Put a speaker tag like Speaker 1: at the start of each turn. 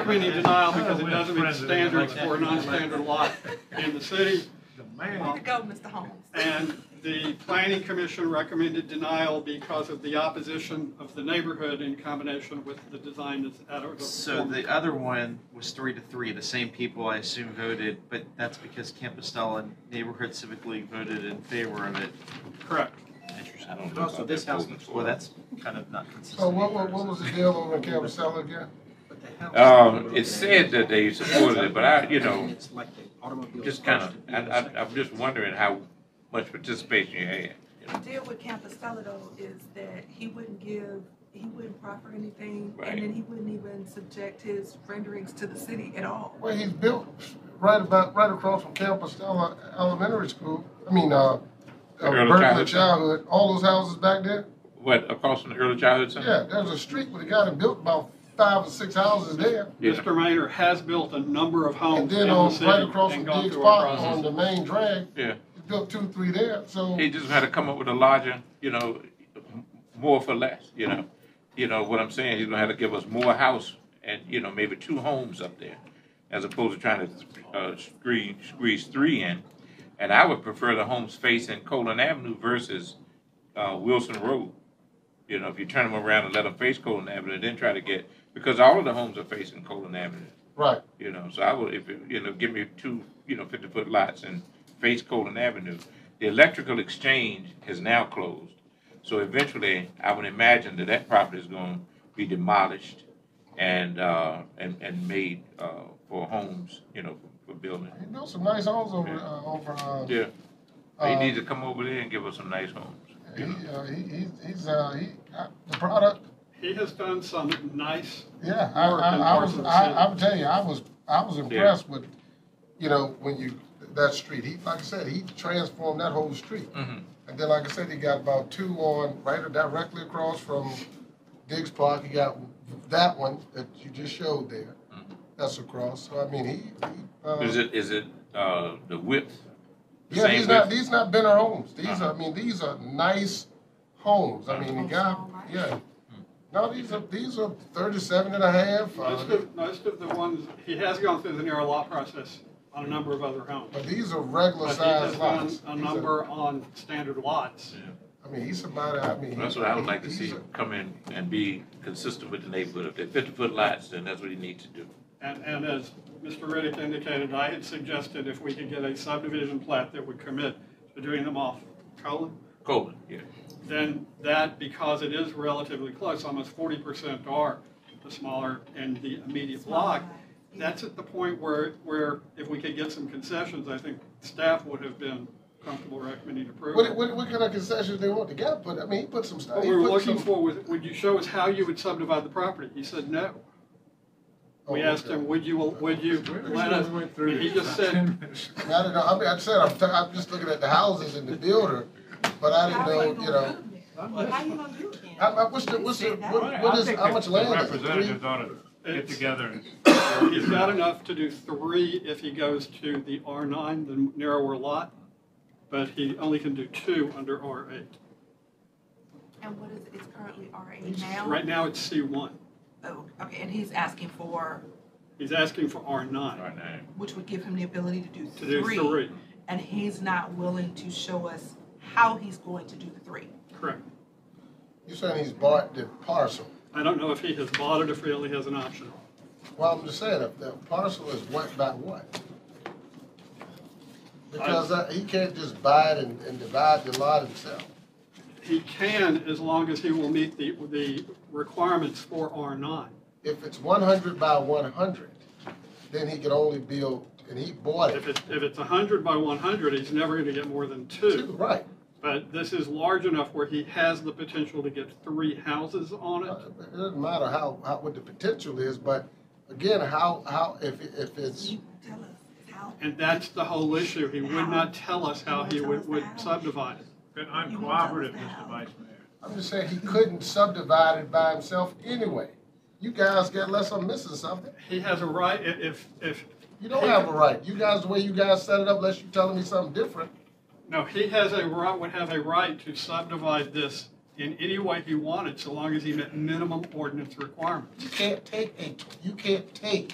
Speaker 1: We need denial because it doesn't meet the
Speaker 2: President, I'd like
Speaker 1: standards for a non-standard lot in the city.
Speaker 2: Demand.
Speaker 3: Go, Mr. Holmes.
Speaker 1: And the planning commission recommended denial because of the opposition of the neighborhood in combination with the design that's out of the.
Speaker 4: So the other one was three to three. The same people I assume voted, but that's because Campostella and Neighborhood Civic League voted in favor of it.
Speaker 1: Correct.
Speaker 4: Interesting.
Speaker 5: I don't know
Speaker 4: Also,
Speaker 5: about
Speaker 4: this
Speaker 5: that
Speaker 4: house
Speaker 5: building
Speaker 4: next
Speaker 5: floor.
Speaker 4: door, that's kind of not consistent.
Speaker 6: So Oh, what, what,
Speaker 4: either,
Speaker 6: what
Speaker 4: is
Speaker 6: was
Speaker 4: it?
Speaker 6: the deal over at Campusella again?
Speaker 5: Um, it said that they supported it, but I, you know, just kind of, I, I, I'm just wondering how much participation you had.
Speaker 3: The deal with Campostello though is that he wouldn't give, he wouldn't proffer anything,
Speaker 5: Right.
Speaker 3: and then he wouldn't even subject his renderings to the city at all.
Speaker 6: Well, he's built right about, right across from Campusella Elementary School, I mean, uh, uh,
Speaker 5: Early
Speaker 6: Berkeley
Speaker 5: childhood.
Speaker 6: Childhood, all those houses back there?
Speaker 5: What, across from the early childhood center?
Speaker 6: Yeah, there's a street where the guy that built about five or six houses there.
Speaker 5: Yeah.
Speaker 1: Mr. Minor has built a number of
Speaker 6: And
Speaker 1: homes in
Speaker 6: then
Speaker 1: the
Speaker 6: on,
Speaker 1: city
Speaker 6: right across
Speaker 1: and
Speaker 6: from
Speaker 1: gone
Speaker 6: Diggs
Speaker 1: through our
Speaker 6: Park
Speaker 1: process.
Speaker 6: on the main drag,
Speaker 5: Yeah,
Speaker 6: he built two, three there, so.
Speaker 5: he just had to come up with a larger, you know, m- more for less, you know. You know, what I'm saying, he's gonna have to give us more house and, you know, maybe two homes up there, as opposed to trying to, uh, squeeze, squeeze three in. And I would prefer the homes facing Colon Avenue versus, uh, Wilson Road. You know, if you turn them around and let them face Colon Avenue, then try to get, because all of the homes are facing Colon Avenue.
Speaker 6: Right,
Speaker 5: You know, so I would, if, it- you know, give me two, you know, fifty foot lots and face Colon Avenue. The electrical exchange has now closed. So eventually, I would imagine that that property is going to be demolished and, uh, and, and made, uh, for homes, you know, for, for building.
Speaker 6: he built some nice homes over, uh, over, uh.
Speaker 5: Yeah, they
Speaker 6: uh,
Speaker 5: need to come over there and give us some nice homes,
Speaker 6: He,
Speaker 5: you know.
Speaker 6: uh, he, he's- he's, uh, he, uh, the product,
Speaker 1: He has done some nice,
Speaker 6: yeah, I,
Speaker 1: Work
Speaker 6: I,
Speaker 1: in
Speaker 6: I
Speaker 1: parts
Speaker 6: was,
Speaker 1: of the
Speaker 6: I,
Speaker 1: city.
Speaker 6: I'm telling you, I was, I was impressed with, you know, when you, that street, he, like I said, he transformed that whole street.
Speaker 5: Mhm.
Speaker 6: And then, like I said, he got about two on, right directly across from Diggs Park, he got that one that you just showed there.
Speaker 5: Mhm.
Speaker 6: That's across, so I mean, he, he, uh.
Speaker 5: Is it, is it, uh, the width? The
Speaker 6: Yeah,
Speaker 5: same
Speaker 6: these not
Speaker 5: width?
Speaker 6: these not Benner homes. These
Speaker 5: Uh-huh.
Speaker 6: are, I mean, these are nice homes. I mean, the guy,
Speaker 3: Oh, nice.
Speaker 6: yeah. No, these are these are 37 and a half. uh,
Speaker 1: most of, most of the ones, he has gone through the narrow lot process on a number of other homes.
Speaker 6: but these are regular
Speaker 1: But he
Speaker 6: sized
Speaker 1: has done
Speaker 6: lots.
Speaker 1: a
Speaker 6: These are-
Speaker 1: number on standard lots.
Speaker 6: I mean, he's somebody. I mean,
Speaker 5: That's what I would like to
Speaker 6: he's
Speaker 5: see
Speaker 6: a-
Speaker 5: come in and be consistent with the neighborhood. If they're fifty-foot lots, then that's what you need to do.
Speaker 1: And, and as Mr. Riddick indicated, I had suggested if we could get a subdivision plat that would commit to doing them off Cullen,
Speaker 5: Colon, yeah.
Speaker 1: then that, because it is relatively close, almost forty percent are the smaller and the immediate block. That's at the point where, where if we could get some concessions, I think staff would have been comfortable recommending
Speaker 6: What,
Speaker 1: approval.
Speaker 6: what, what kind of concessions they want? The guy put. I mean, he put some stuff.
Speaker 1: What
Speaker 6: he
Speaker 1: we were
Speaker 6: put
Speaker 1: looking
Speaker 6: some-
Speaker 1: for was, would you show us how you would subdivide the property? He said no.
Speaker 6: Oh,
Speaker 1: We asked
Speaker 6: okay.
Speaker 1: him, would you, would you let us, and he just said,
Speaker 6: I, mean, I didn't know. I mean, I said I'm, t- I'm just looking at the houses and the builder, but I didn't
Speaker 3: How are you
Speaker 6: know. You know,
Speaker 3: gonna do that? How you gonna do
Speaker 6: I,
Speaker 3: that?
Speaker 6: I, what's the what's the what,
Speaker 2: Right,
Speaker 6: what
Speaker 2: I
Speaker 6: is
Speaker 2: think
Speaker 6: how
Speaker 2: the-
Speaker 6: much
Speaker 2: the
Speaker 6: land? is it? Three?
Speaker 2: Representatives ought to get
Speaker 1: It's-
Speaker 2: together and.
Speaker 1: he's got enough to do three if he goes to the R9, the narrower lot, but he only can do two under R8.
Speaker 3: And what is, it's currently R eight
Speaker 1: Right
Speaker 3: now?
Speaker 1: now, it's C1.
Speaker 3: Oh, okay, and he's asking for,
Speaker 1: He's asking for R9
Speaker 5: Right now.
Speaker 3: which would give him the ability to do
Speaker 1: to do
Speaker 3: three.
Speaker 1: three.
Speaker 3: And he's not willing to show us how he's going to do the three.
Speaker 1: Correct.
Speaker 6: You're saying he's bought the parcel.
Speaker 1: I don't know if he has bought it, if he only has an option.
Speaker 6: Well, I'm just saying, if the parcel is what by what? Because uh, he can't just buy it and, and divide the lot himself.
Speaker 1: He can, as long as he will meet the, the requirements for R9.
Speaker 6: If it's one hundred by one hundred, then he can only build, and he bought
Speaker 1: If
Speaker 6: it.
Speaker 1: it's, if it's 100 by 100, he's never going to get more than
Speaker 6: too,
Speaker 1: two.
Speaker 6: Right.
Speaker 1: But this is large enough where he has the potential to get three houses on
Speaker 6: Uh,
Speaker 1: it.
Speaker 6: It doesn't matter how, how, what the potential is, but again, how, how, if, if it's,
Speaker 3: You tell us how.
Speaker 1: And that's the whole issue. He would not tell us how he would, would subdivide it.
Speaker 2: Been uncooperative, Mr. Vice Mayor.
Speaker 6: I'm just saying, he couldn't subdivide it by himself anyway. You guys get, unless I'm missing something.
Speaker 1: He has a right, i- if, if,
Speaker 6: You don't have a right. You guys, the way you guys set it up, unless you're telling me something different.
Speaker 1: no, he has a right, would have a right to subdivide this in any way he wanted, so long as he met minimum ordinance requirements.
Speaker 6: You can't take a, you can't take